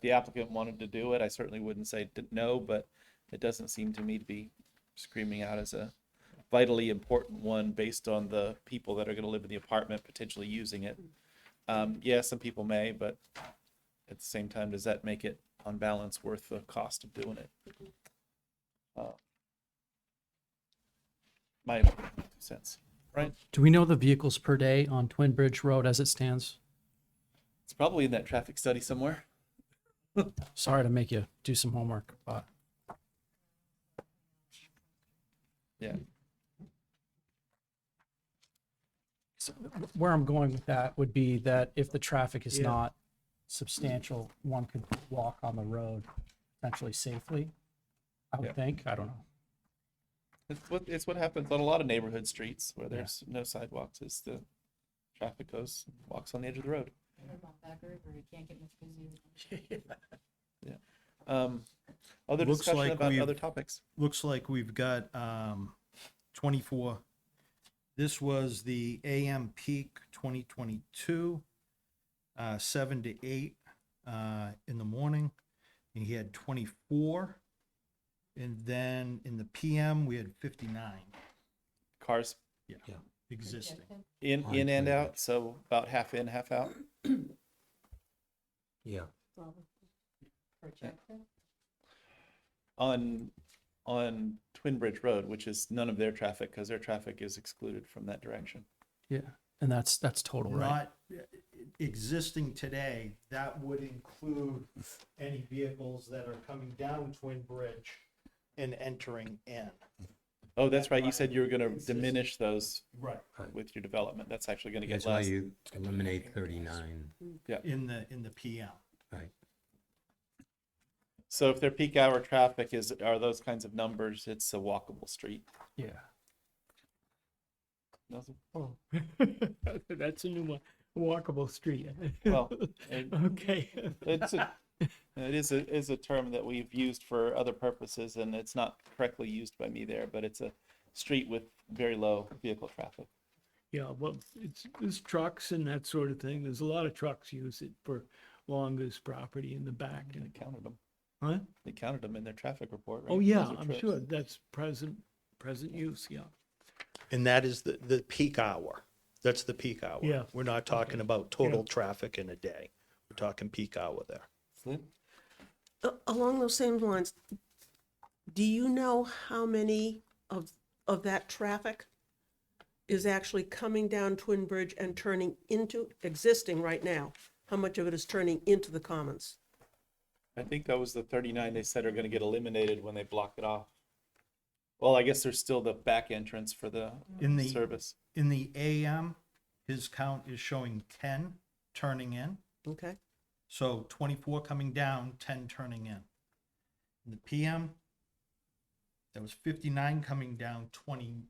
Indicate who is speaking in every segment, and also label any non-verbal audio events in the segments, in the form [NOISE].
Speaker 1: the applicant wanted to do it, I certainly wouldn't say d- no, but it doesn't seem to me to be screaming out as a vitally important one based on the people that are going to live in the apartment potentially using it. Um, yeah, some people may, but at the same time, does that make it on balance worth the cost of doing it? Uh, My two sense, right?
Speaker 2: Do we know the vehicles per day on Twin Bridge Road as it stands?
Speaker 1: It's probably in that traffic study somewhere.
Speaker 2: Sorry to make you do some homework, but
Speaker 1: Yeah.
Speaker 2: so where I'm going with that would be that if the traffic is
Speaker 3: Yeah.
Speaker 2: not substantial, one could walk on the road potentially safely. I
Speaker 1: Yeah.
Speaker 2: would think, I don't know.
Speaker 1: It's what it's what happens on a lot of neighborhood streets where
Speaker 2: Yeah.
Speaker 1: there's no sidewalks. Is the traffic goes walks on the edge of the road.
Speaker 4: What about Back River? You can't get much busier.
Speaker 3: [LAUGHS]
Speaker 1: Um, other
Speaker 3: Looks
Speaker 1: discussion
Speaker 3: like
Speaker 1: about
Speaker 3: we've-
Speaker 1: other topics.
Speaker 3: looks like we've got um, 24. This was the AM peak 2022, uh, 7 to 8 uh, in the morning. And he had 24. And then in the PM, we had 59
Speaker 1: Cars
Speaker 3: existing.
Speaker 1: in
Speaker 5: On
Speaker 1: in and
Speaker 5: Twitter.
Speaker 1: out, so about half in, half out.
Speaker 5: Yeah,
Speaker 4: Projected?
Speaker 1: on on Twin Bridge Road, which is none of their traffic because their traffic is excluded from that direction.
Speaker 2: Yeah, and that's, that's total, right?
Speaker 3: Not uh, existing today, that would include any vehicles that are coming down Twin Bridge and entering in.
Speaker 1: Oh, that's right. You
Speaker 3: Right.
Speaker 1: said you were going to
Speaker 3: It's just-
Speaker 1: diminish those
Speaker 3: Right.
Speaker 1: with your development. That's actually going to get
Speaker 5: that's why
Speaker 1: less.
Speaker 5: you eliminate thirty-nine,
Speaker 3: In the, in the PM.
Speaker 5: right?
Speaker 1: So if their peak hour traffic is are those kinds of numbers, it's a walkable street.
Speaker 2: Yeah.
Speaker 1: Nothing.
Speaker 6: Oh, [LAUGHS] that's a new one, walkable street.
Speaker 1: Well, and-
Speaker 6: [LAUGHS] Okay.
Speaker 1: It's
Speaker 6: [LAUGHS]
Speaker 1: a, it is a is a term that we've used for other purposes, and it's not correctly used by me there. But it's a street with very low vehicle traffic.
Speaker 6: Yeah, well, it's, it's trucks and that sort of thing. There's a lot of trucks use it for along this property in the back
Speaker 1: They
Speaker 6: and,
Speaker 1: counted them.
Speaker 6: huh?
Speaker 1: They counted them in their traffic report. Right?
Speaker 6: Oh, yeah,
Speaker 1: Those are
Speaker 6: I'm
Speaker 1: trips.
Speaker 6: sure that's present, present use, yeah.
Speaker 3: And that is the, the peak hour. That's the peak hour.
Speaker 6: Yeah.
Speaker 3: We're not talking about total traffic in a day. We're talking peak hour there.
Speaker 1: Lynn?
Speaker 7: A- Along those same lines, do you know how many of, of that traffic is actually coming down Twin Bridge and turning into, existing right now? How much of it is turning into the commons?
Speaker 1: I think that was the 39 they said are going to get eliminated when they block it off. Well, I guess there's still the back entrance for the
Speaker 3: In the,
Speaker 1: service.
Speaker 3: in the AM, his count is showing ten turning in.
Speaker 7: Okay,
Speaker 3: So twenty-four coming down, ten turning in. In the PM, there was fifty-nine coming down, 20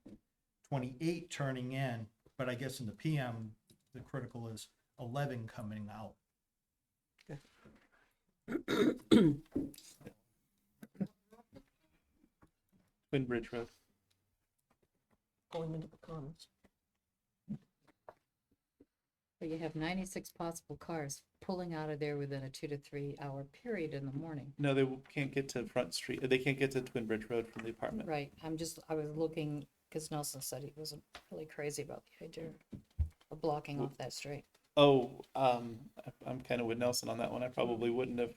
Speaker 3: 28 turning in, but I guess in the PM, the critical is eleven coming out.
Speaker 1: Twin Bridge Road.
Speaker 7: going into the commons.
Speaker 4: But you have ninety-six possible cars pulling out of there within a two to three hour period in the morning.
Speaker 1: No, they can't get to Front Street. They can't get to Twin Bridge Road from the apartment.
Speaker 4: Right, I'm just, I was looking, because Nelson said he wasn't really crazy about the idea of blocking off that street.
Speaker 1: Oh, um, I- I'm kind of with Nelson on that one. I probably wouldn't have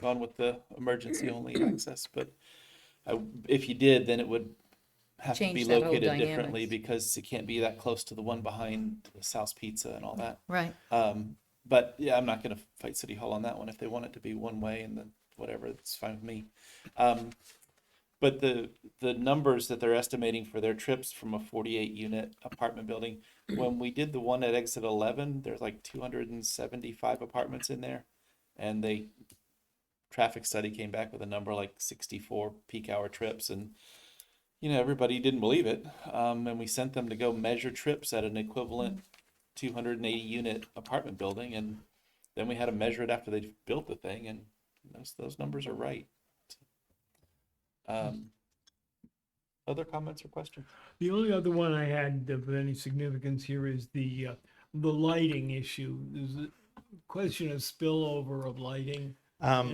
Speaker 1: gone with the
Speaker 4: [CLEARS THROAT]
Speaker 1: emergency only access, but I, if you did, then it would have to be
Speaker 4: Change that whole
Speaker 1: located differently
Speaker 4: dynamics.
Speaker 1: because it can't be that close to the one behind South Pizza and all that.
Speaker 4: Right.
Speaker 1: Um, but yeah, I'm not gonna fight City Hall on that one. If they want it to be one way and then whatever, it's fine with me. Um, but the, the numbers that they're estimating for their trips from a forty-eight unit apartment building, when we did the one at exit eleven, there's like two hundred and seventy-five apartments in there. And they, traffic study came back with a number like sixty-four peak hour trips and you know, everybody didn't believe it. Um, and we sent them to go measure trips at an equivalent 280 unit apartment building and then we had to measure it after they built the thing and those, those numbers are right um, other comments or questions
Speaker 6: The only other one I had of any significance here is the, uh, the lighting issue. There's a question of spillover of lighting
Speaker 3: Um,